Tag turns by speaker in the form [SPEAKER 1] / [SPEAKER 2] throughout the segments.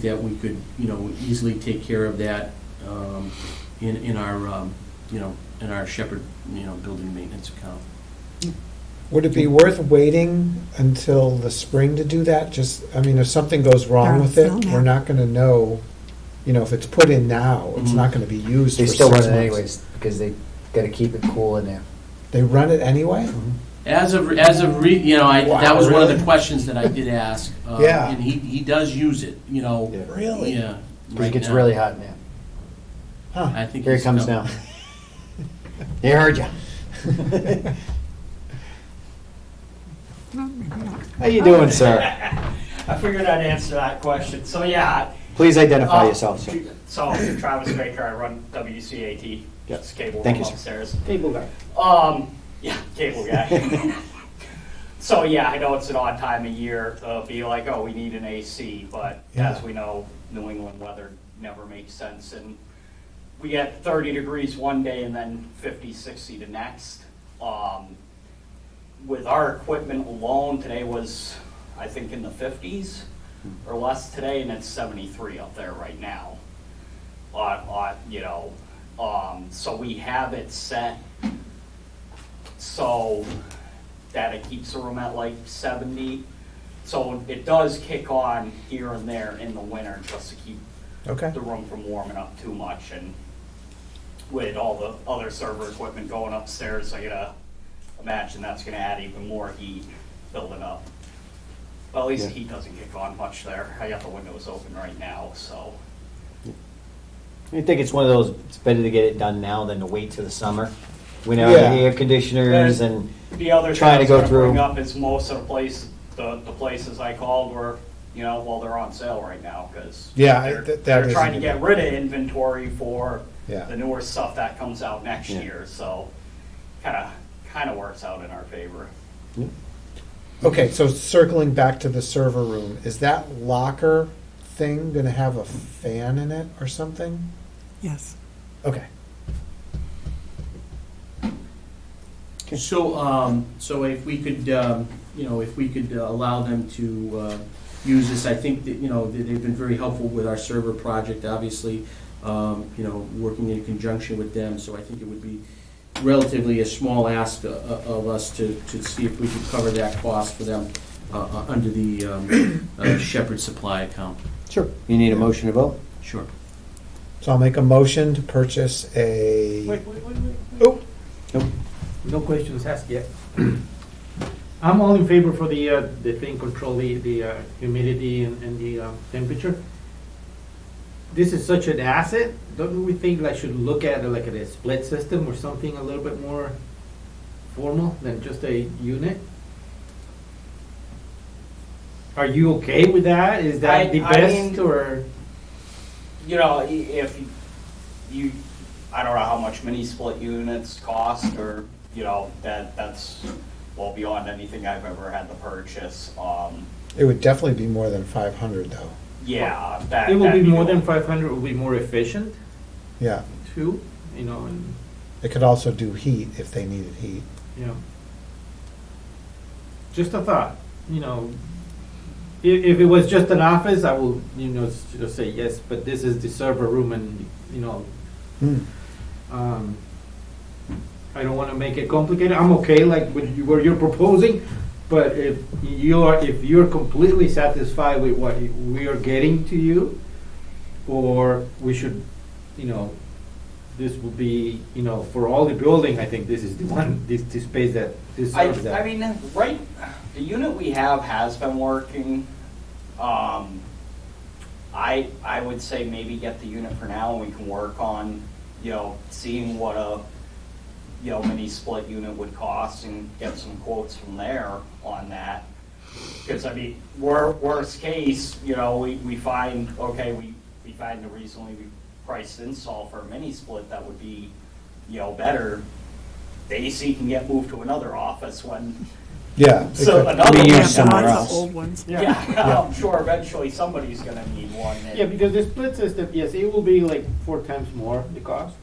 [SPEAKER 1] that we could, you know, easily take care of that um, in, in our, um, you know, in our Shepherd, you know, building maintenance account.
[SPEAKER 2] Would it be worth waiting until the spring to do that? Just, I mean, if something goes wrong with it,
[SPEAKER 3] Darn, no, no.
[SPEAKER 2] we're not gonna know, you know, if it's put in now, it's not gonna be used
[SPEAKER 4] Mm-hmm. They
[SPEAKER 2] for
[SPEAKER 4] still
[SPEAKER 2] six
[SPEAKER 4] run it
[SPEAKER 2] months.
[SPEAKER 4] anyways, because they gotta keep it cool in there.
[SPEAKER 2] They run it anyway?
[SPEAKER 4] Mm-hmm.
[SPEAKER 1] As of, as of, re- you know, I, that
[SPEAKER 2] Wow,
[SPEAKER 1] was one of the
[SPEAKER 2] really?
[SPEAKER 1] questions that I did ask. um,
[SPEAKER 2] Yeah.
[SPEAKER 1] And he, he does use it, you know,
[SPEAKER 2] Really?
[SPEAKER 1] yeah.
[SPEAKER 4] Because it
[SPEAKER 1] right
[SPEAKER 4] gets
[SPEAKER 1] now.
[SPEAKER 4] really hot in there.
[SPEAKER 2] Huh.
[SPEAKER 1] I think.
[SPEAKER 4] Here it
[SPEAKER 1] he's
[SPEAKER 4] comes
[SPEAKER 1] come-
[SPEAKER 4] now. They heard ya. How you doing, sir?
[SPEAKER 5] I figured I'd answer that question. So yeah.
[SPEAKER 4] Please identify
[SPEAKER 5] uh,
[SPEAKER 4] yourself, sir.
[SPEAKER 5] So Travis Baker, I run WCAT,
[SPEAKER 4] Yep.
[SPEAKER 5] just cable
[SPEAKER 4] Thank
[SPEAKER 5] room
[SPEAKER 4] you, sir.
[SPEAKER 5] upstairs. Cable guy. Um, yeah, cable guy. So yeah, I know it's an odd time of year to be like, oh, we need an AC, but
[SPEAKER 2] Yeah.
[SPEAKER 5] as we know, New England weather never makes sense. And we get 30 degrees one day and then 50, 60 the next. Um, with our equipment alone, today was, I think, in the 50s or less today, and it's 73 up there right now. On, on, you know, um, so we have it set so that it keeps the room at like 70. So it does kick on here and there in the winter just to keep
[SPEAKER 2] Okay.
[SPEAKER 5] the room from warming up too much and with all the other server equipment going upstairs, I gotta imagine that's gonna add even more heat building up. Well, at least the
[SPEAKER 4] Yeah.
[SPEAKER 5] heat doesn't kick on much there. I got the windows open right now, so.
[SPEAKER 4] I think it's one of those, it's better to get it done now than to wait till the summer. When all the
[SPEAKER 2] Yeah.
[SPEAKER 4] air conditioners and,
[SPEAKER 5] The other thing
[SPEAKER 4] Trying
[SPEAKER 5] I
[SPEAKER 4] to
[SPEAKER 5] was
[SPEAKER 4] go
[SPEAKER 5] gonna bring
[SPEAKER 4] through.
[SPEAKER 5] up is most of the place, the, the places I called were, you know, well, they're on sale right now, cause.
[SPEAKER 2] Yeah, I-
[SPEAKER 5] they're-
[SPEAKER 2] that- that
[SPEAKER 5] They're
[SPEAKER 2] is-
[SPEAKER 5] trying to get rid of inventory for
[SPEAKER 2] Yeah.
[SPEAKER 5] the newer stuff that comes out next
[SPEAKER 4] Yeah.
[SPEAKER 5] year, so kinda, kinda works out in our favor.
[SPEAKER 2] Okay, so circling back to the server room, is that locker thing gonna have a fan in it or something?
[SPEAKER 3] Yes.
[SPEAKER 2] Okay.
[SPEAKER 1] So, um, so if we could, um, you know, if we could uh, allow them to, uh, use this, I think that, you know, they- they've been very helpful with our server project, obviously, um, you know, working in conjunction with them, so I think it would be relatively a small ask o- o- of us to, to see if we could cover that cost for them, uh, uh, under the, um, uh, Shepherd Supply account.
[SPEAKER 4] sure, you need a motion to vote?
[SPEAKER 1] Sure.
[SPEAKER 2] So I'll make a motion to purchase a,
[SPEAKER 6] wait, wait, wait.
[SPEAKER 2] oh,
[SPEAKER 6] No questions asked yet. I'm all in favor for the, uh, the thing control the, the uh, humidity and, and the um, temperature. This is such an asset, don't we think I should look at it like at a split system or something a little bit more formal than just a unit? Are you okay with that? Is
[SPEAKER 5] I-
[SPEAKER 6] that the
[SPEAKER 5] I
[SPEAKER 6] best
[SPEAKER 5] mean-
[SPEAKER 6] or?
[SPEAKER 5] you know, i- if you- you, I don't know how much mini split units cost or, you know, that, that's well beyond anything I've ever had to purchase. Um,
[SPEAKER 2] it would definitely be more than five hundred though.
[SPEAKER 5] yeah, that.
[SPEAKER 6] It will be
[SPEAKER 5] that'd
[SPEAKER 6] more than
[SPEAKER 5] the-
[SPEAKER 6] five hundred, it will be more efficient
[SPEAKER 2] Yeah,
[SPEAKER 6] too, you know, and,
[SPEAKER 2] it could also do heat if they needed heat.
[SPEAKER 6] you know. Just a thought, you know, if, if it was just an office, I will, you know, s- just say yes, but this is the server room and, you know,
[SPEAKER 2] Hmm.
[SPEAKER 6] um, I don't wanna make it complicated, I'm okay like with you- what you're proposing, but if you are, if you're completely satisfied with what you- we are getting to you, or we should, you know, this would be, you know, for all the building, I think this is the one, this, this space that, this
[SPEAKER 5] I,
[SPEAKER 6] serves that.
[SPEAKER 5] I mean, right, the unit we have has been working. Um, I, I would say maybe get the unit for now and we can work on, you know, seeing what a, you know, mini split unit would cost and get some quotes from there on that. Because I mean, wor- worst case, you know, we, we find, okay, we, we find the reasonably priced install for a mini split that would be, you know, better. The AC can get moved to another office when,
[SPEAKER 2] Yeah. it
[SPEAKER 5] so
[SPEAKER 2] could-
[SPEAKER 5] another
[SPEAKER 4] We
[SPEAKER 5] one.
[SPEAKER 4] use
[SPEAKER 3] Yeah,
[SPEAKER 5] comes.
[SPEAKER 3] but
[SPEAKER 4] somewhere
[SPEAKER 3] mine's the
[SPEAKER 4] else.
[SPEAKER 3] Old ones.
[SPEAKER 5] Yeah, I'm sure eventually somebody's gonna need one. and-
[SPEAKER 6] Yeah, because the split system, yes, it will be like four times more the cost.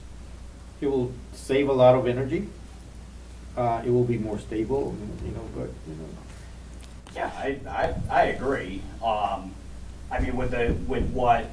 [SPEAKER 6] It will save a lot of energy. Uh, it will be more stable, you know, but, you know.
[SPEAKER 5] Yeah, I, I, I agree. Um, I mean, with the, with what